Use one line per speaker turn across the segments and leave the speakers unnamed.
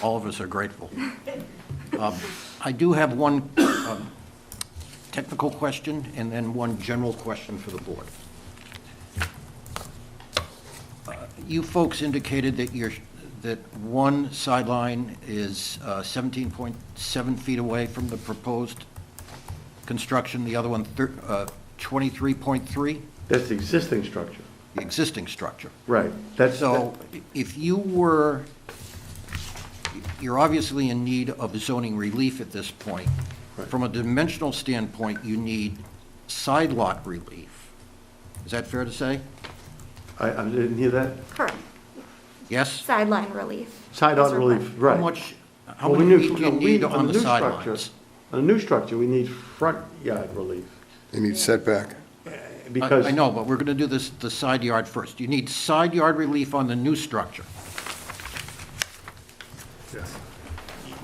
all of us are grateful. Um, I do have one um, technical question and then one general question for the board. Uh, You folks indicated that you're, that one sideline is uh, 17.7 feet away from the proposed construction, the other one thir- uh, 23.3,
That's the existing structure.
the existing structure.
Right. That's,
So if you were, you're obviously in need of zoning relief at this point.
Right.
From a dimensional standpoint, you need side lot relief. Is that fair to say?
I, I didn't hear that.
Correct.
Yes?
Sideline relief.
Side on
Those are
relief,
fine.
right.
How much, how
Well, we
many
need-
feet do you
no, we-
need
the
on the
new structure-
sidelines?
On a new structure, we need front yard relief,
They need setback.
I-
because.
I know, but we're going to do this, the side yard first. You need side yard relief on the new structure.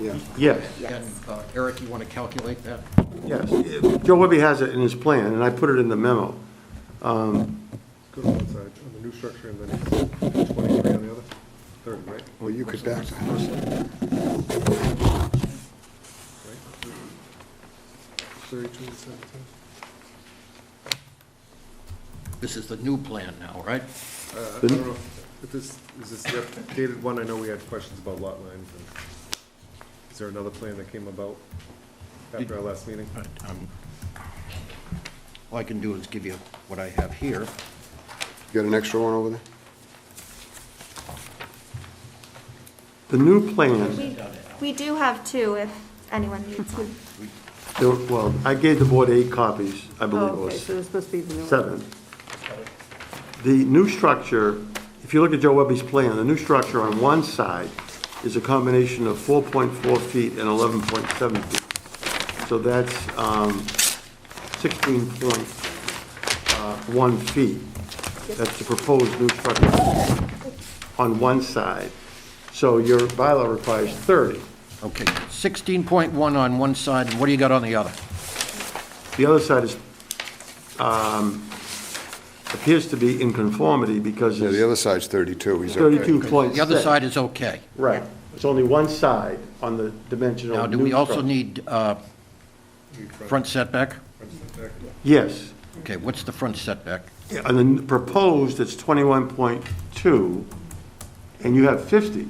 Yeah.
Yes,
And uh, Eric, you want to calculate that?
yes. Joe Webby has it in his plan, and I put it in the memo.
Go to one side, on the new structure, and then 23 on the other, 30, right?
Well, you could back the house up.
32 and 17.
This is the new plan now, right?
Uh, I don't know if if this, is this the updated one? I know we had questions about lot lines. and Is there another plan that came about after our last meeting?
But, um, All I can do is give you what I have here.
You got an extra one over there?
The new plan,
We, we do have two if anyone needs one.
there- well, I gave the board eight copies, I believe it
Oh,
was.
okay, so it's supposed to be the new one.
seven. The new structure, if you look at Joe Webby's plan, the new structure on one side is a combination of 4.4 feet and 11.7 feet. So that's um, 16.1 uh, feet. That's the proposed new structure on one side. So your bylaw requires 30.
Okay, 16.1 on one side, and what do you got on the other?
The other side is, um, appears to be in conformity because
Yeah, the
it's
other side's 32, he's okay.
32.6.
The other side is okay.
Right, it's only one side on the dimensional.
Now, do we
new
also
structure.
need uh, front setback?
Yes,
Okay, what's the front setback?
and then proposed, it's twenty-one point two, and you have fifty.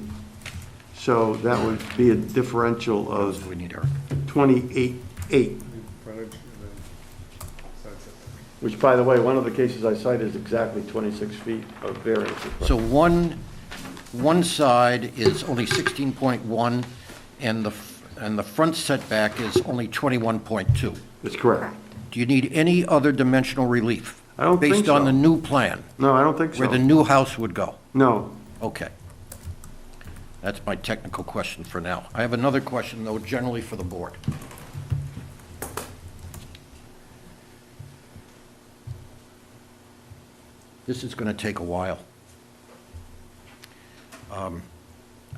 So that would be a differential
Do
of
we need, Eric?
twenty-eight, eight,
New Frontage and then side setback.
which, by the way, one of the cases I cite is exactly twenty-six feet of variance.
So one, one side is only 16.1, and the, f- and the front setback is only 21.2.
That's correct.
Do you need any other dimensional relief?
I don't think
Based on
so.
the new plan,
No, I don't think
where the
so.
new house would go?
No,
Okay. That's my technical question for now. I have another question, though, generally for the board. This is going to take a while. Um,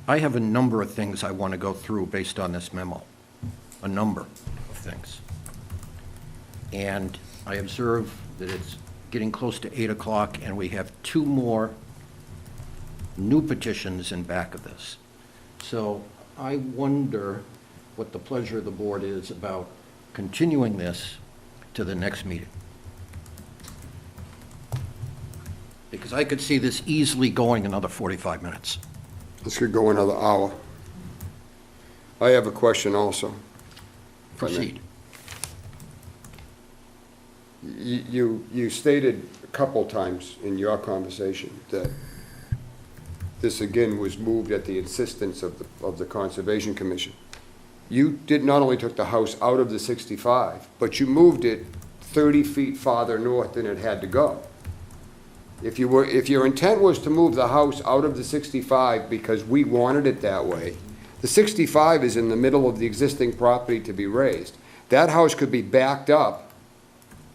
I have a number of things I want to go through based on this memo, a number of things. And I observe that it's getting close to 8 o'clock, and we have two more new petitions in back of this. So I wonder what the pleasure of the board is about continuing this to the next meeting. Because I could see this easily going another 45 minutes.
This could go another hour. I have a question also.
Proceed.
Y- You, you stated a couple times in your conversation that this again was moved at the insistence of, the of the Conservation Commission. You did, not only took the house out of the 65, but you moved it 30 feet farther north than it had to go. If you were, if your intent was to move the house out of the 65 because we wanted it that way, the 65 is in the middle of the existing property to be raised. That house could be backed up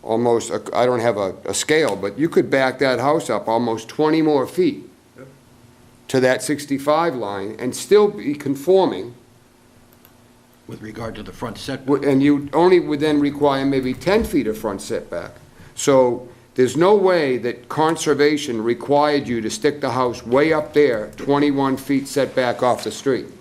almost, I don't have a, a scale, but you could back that house up almost 20 more feet to that 65 line and still be conforming,
With regard to the front setback,
w- and you only would then require maybe 10 feet of front setback. So there's no way that conservation required you to stick the house way up there, 21 feet setback off the street.